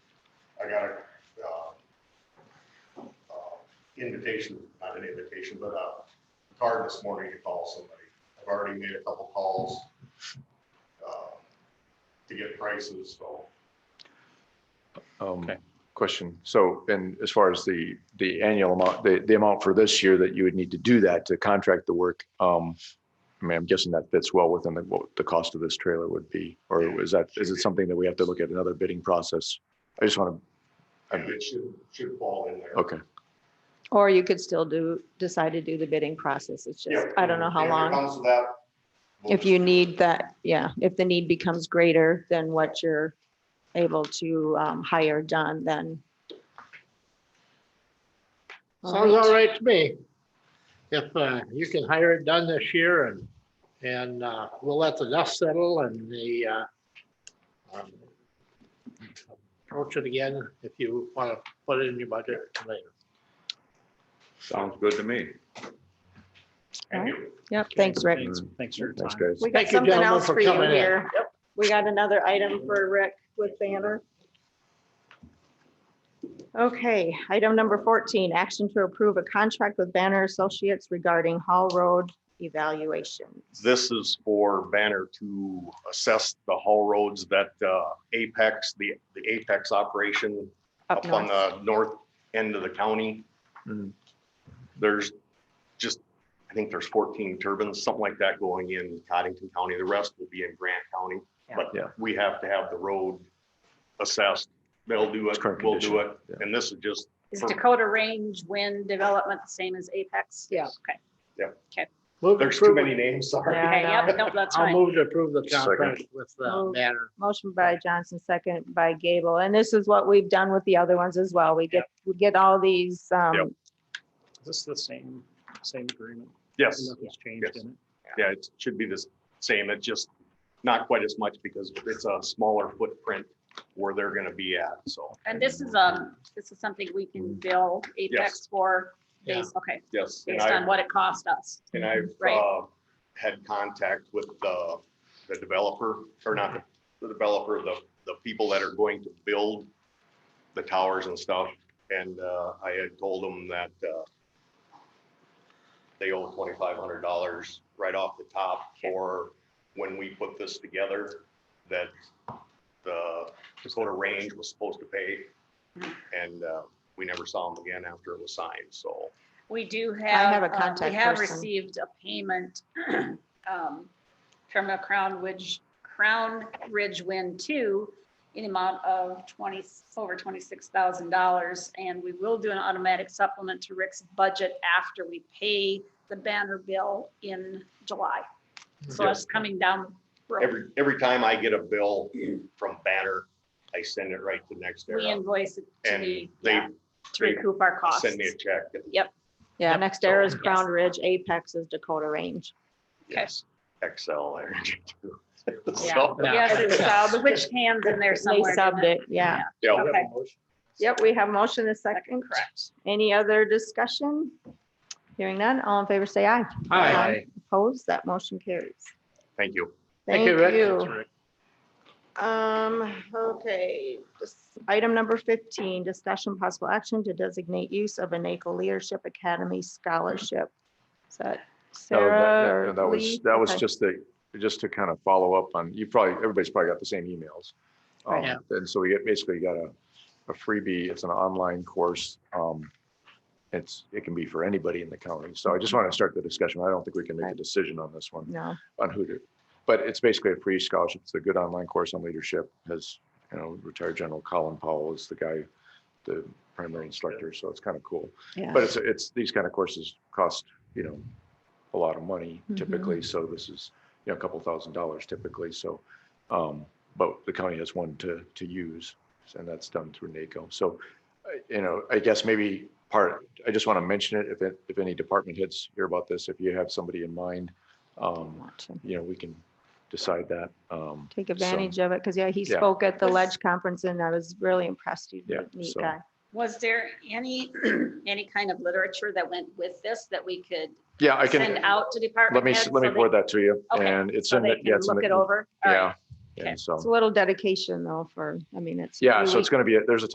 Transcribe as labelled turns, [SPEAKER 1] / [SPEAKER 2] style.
[SPEAKER 1] I got a, uh, uh, invitation, not an invitation, but a card this morning to call somebody. I've already made a couple calls, uh, to get prices, so
[SPEAKER 2] Um,
[SPEAKER 3] Okay.
[SPEAKER 2] Question. So, and as far as the, the annual amount, the, the amount for this year that you would need to do that to contract the work, um, I mean, I'm guessing that fits well within the, what the cost of this trailer would be, or is that, is it something that we have to look at another bidding process? I just want
[SPEAKER 1] and it should, should fall in there.
[SPEAKER 2] to, okay,
[SPEAKER 4] Or you could still do, decide to do the bidding process. It's just,
[SPEAKER 1] Yeah,
[SPEAKER 4] I don't know how
[SPEAKER 1] if it
[SPEAKER 4] long.
[SPEAKER 1] comes to that, we'll
[SPEAKER 4] If
[SPEAKER 1] just-
[SPEAKER 4] you need that, yeah, if the need becomes greater than what you're able to um, hire done, then. All
[SPEAKER 5] Sounds
[SPEAKER 4] right.
[SPEAKER 5] all right to me. If uh, you can hire it done this year and, and uh, we'll let the dust settle and the uh, um, approach it again if you want to put it in your budget later.
[SPEAKER 6] Sounds good to me.
[SPEAKER 1] Thank you.
[SPEAKER 4] Yep, thanks, Rick.
[SPEAKER 3] Thanks- Thanks for your
[SPEAKER 2] thanks,
[SPEAKER 3] time.
[SPEAKER 2] guys.
[SPEAKER 4] We got
[SPEAKER 5] Thank you,
[SPEAKER 4] something
[SPEAKER 5] gentlemen,
[SPEAKER 4] else
[SPEAKER 5] for
[SPEAKER 4] for you
[SPEAKER 5] coming in.
[SPEAKER 4] here. We got another item for Rick with Banner. Okay, item number 14, action to approve a contract with Banner Associates regarding Hall Road evaluation.
[SPEAKER 7] This is for Banner to assess the haul roads that uh, Apex, the, the Apex operation
[SPEAKER 4] Up
[SPEAKER 7] up on
[SPEAKER 4] north.
[SPEAKER 7] the north end of the county.
[SPEAKER 2] Mhm.
[SPEAKER 7] There's just, I think there's fourteen turbines, something like that going in Cottington County. The rest will be in Grant County.
[SPEAKER 4] Yeah.
[SPEAKER 7] But
[SPEAKER 2] Yeah.
[SPEAKER 7] we have to have the road assessed. They'll do it,
[SPEAKER 2] It's current
[SPEAKER 7] we'll do
[SPEAKER 2] condition,
[SPEAKER 7] it.
[SPEAKER 2] yeah.
[SPEAKER 7] And this is just
[SPEAKER 8] Is
[SPEAKER 7] For-
[SPEAKER 8] Dakota Range Wind Development the same as Apex?
[SPEAKER 4] Yeah.
[SPEAKER 8] Okay,
[SPEAKER 5] Move to
[SPEAKER 7] There's too
[SPEAKER 5] approve
[SPEAKER 7] many
[SPEAKER 5] it.
[SPEAKER 7] names, sorry.
[SPEAKER 4] Yeah, I
[SPEAKER 8] okay,
[SPEAKER 4] know.
[SPEAKER 8] yep, nope, that's
[SPEAKER 5] I'll
[SPEAKER 8] fine.
[SPEAKER 5] move to approve the
[SPEAKER 2] Second.
[SPEAKER 5] contract with uh,
[SPEAKER 4] Move.
[SPEAKER 5] Banner.
[SPEAKER 4] Motion by Johnson, second by Gable. And this is what we've done with the other ones as well. We get, we get all these,
[SPEAKER 7] Yep.
[SPEAKER 4] um,
[SPEAKER 3] Is this the same, same agreement?
[SPEAKER 7] Yes.
[SPEAKER 3] Nothing's changed
[SPEAKER 7] Yes.
[SPEAKER 3] in it?
[SPEAKER 7] Yeah, it should be the same. It's just not quite as much because it's a smaller footprint where they're gonna be at, so,
[SPEAKER 8] And this is, um, this is something we can bill Apex for,
[SPEAKER 5] Yeah.
[SPEAKER 8] based, okay,
[SPEAKER 7] yes. Mm. and
[SPEAKER 8] based
[SPEAKER 7] I-
[SPEAKER 8] on what it cost us.
[SPEAKER 7] And I've
[SPEAKER 8] Right.
[SPEAKER 7] uh, had contact with the, the developer, or not the- the developer, the, the people that are going to build the towers and stuff. And uh, I had told them that uh, they owe twenty-five hundred dollars right off the top for when we put this together, that the Dakota Range was supposed to pay. And uh, we never saw them again after it was signed, so.
[SPEAKER 8] We do have.
[SPEAKER 4] have a
[SPEAKER 8] um,
[SPEAKER 4] contact
[SPEAKER 8] We have
[SPEAKER 4] person.
[SPEAKER 8] received a payment um, from a Crown Ridge, Crown Ridge Wind Two in amount of twenty, over twenty-six thousand dollars. And we will do an automatic supplement to Rick's budget after we pay the banner bill in July. So it's coming down. the road.
[SPEAKER 7] Every, every time I get a bill from Banner, I send it right to
[SPEAKER 8] We
[SPEAKER 7] NextEra
[SPEAKER 8] invoice it to
[SPEAKER 7] uh, and
[SPEAKER 8] the,
[SPEAKER 7] they
[SPEAKER 8] yeah, to
[SPEAKER 7] they
[SPEAKER 8] recoup our costs.
[SPEAKER 7] send me a check. and-
[SPEAKER 4] yeah,
[SPEAKER 3] Yep.
[SPEAKER 4] next era is
[SPEAKER 3] Yes.
[SPEAKER 4] Crown Ridge, Apex is Dakota Range.
[SPEAKER 7] Yes, Excel. energy too.
[SPEAKER 8] Yeah.
[SPEAKER 7] So,
[SPEAKER 8] Yes, it's uh, the witch hands in there
[SPEAKER 4] They
[SPEAKER 8] somewhere.
[SPEAKER 4] subbed it, yeah.
[SPEAKER 7] yeah,
[SPEAKER 8] Okay.
[SPEAKER 4] Yep, we have motion and second.
[SPEAKER 8] Correct.
[SPEAKER 4] Any other discussion? Hearing none, all in favor say aye.
[SPEAKER 5] Hi.
[SPEAKER 4] Opposed, that motion carries.
[SPEAKER 7] Thank you.
[SPEAKER 4] Thank
[SPEAKER 5] Rick.
[SPEAKER 4] you. Um, okay, this- item number fifteen, discussion possible action to designate use of a NACO Leadership Academy Scholarship. Is that
[SPEAKER 2] No, that- that-
[SPEAKER 4] Sarah or
[SPEAKER 2] That was,
[SPEAKER 4] Lee?
[SPEAKER 2] that was
[SPEAKER 4] Okay.
[SPEAKER 2] just the, just to kind of follow up on, you probably, everybody's probably got the same emails.
[SPEAKER 5] Right.
[SPEAKER 2] Um, And so we get- basically got a, a freebie, it's an online course. um, It's, it can be for anybody in the county. So I just want to start the discussion. I don't think we can make a
[SPEAKER 4] Right.
[SPEAKER 2] decision on this one,
[SPEAKER 4] No,
[SPEAKER 2] on who to. But it's basically a free scholarship. It's a good online course on leadership. Has, you know, retired General Colin Powell is the guy, the primary instructor. So it's kind of cool.
[SPEAKER 4] yeah.
[SPEAKER 2] But it's, it's, these kind of courses cost, you know, a lot of money
[SPEAKER 8] Mm-hmm.
[SPEAKER 4] Mhm.
[SPEAKER 2] typically, so this is, you know, a couple thousand dollars typically, so. Um, but the county has one to, to use, and that's done through NACO, so, uh, you know, I guess maybe part, I just want to mention it, if, it- if any department heads hear about this, if you have somebody in mind, um,
[SPEAKER 4] Want to
[SPEAKER 2] you know, we can decide that. Um,
[SPEAKER 4] Take
[SPEAKER 2] so-
[SPEAKER 4] advantage of it, because yeah, he
[SPEAKER 2] Yeah.
[SPEAKER 4] spoke at the
[SPEAKER 8] Was-
[SPEAKER 4] Ledge Conference and I was really impressed. He's
[SPEAKER 2] Yeah,
[SPEAKER 4] a neat
[SPEAKER 2] so-
[SPEAKER 4] guy.
[SPEAKER 8] Was there any, any kind of literature that went with this that we could
[SPEAKER 2] Yeah, I
[SPEAKER 8] send
[SPEAKER 2] can,
[SPEAKER 8] out to department
[SPEAKER 2] let me,
[SPEAKER 8] heads?
[SPEAKER 2] let me
[SPEAKER 8] so
[SPEAKER 2] forward
[SPEAKER 8] they-
[SPEAKER 2] that to you,
[SPEAKER 8] Okay,
[SPEAKER 2] and it's
[SPEAKER 8] So
[SPEAKER 2] in,
[SPEAKER 8] they
[SPEAKER 2] the- yeah,
[SPEAKER 8] can
[SPEAKER 2] it's in,
[SPEAKER 8] look it
[SPEAKER 2] the-
[SPEAKER 8] over? All right.
[SPEAKER 2] yeah.
[SPEAKER 8] Okay.
[SPEAKER 2] And so.
[SPEAKER 4] It's a little dedication though for, I mean, it's.
[SPEAKER 2] Yeah,
[SPEAKER 4] three
[SPEAKER 2] so it's
[SPEAKER 4] weeks.
[SPEAKER 2] gonna be, a- there's a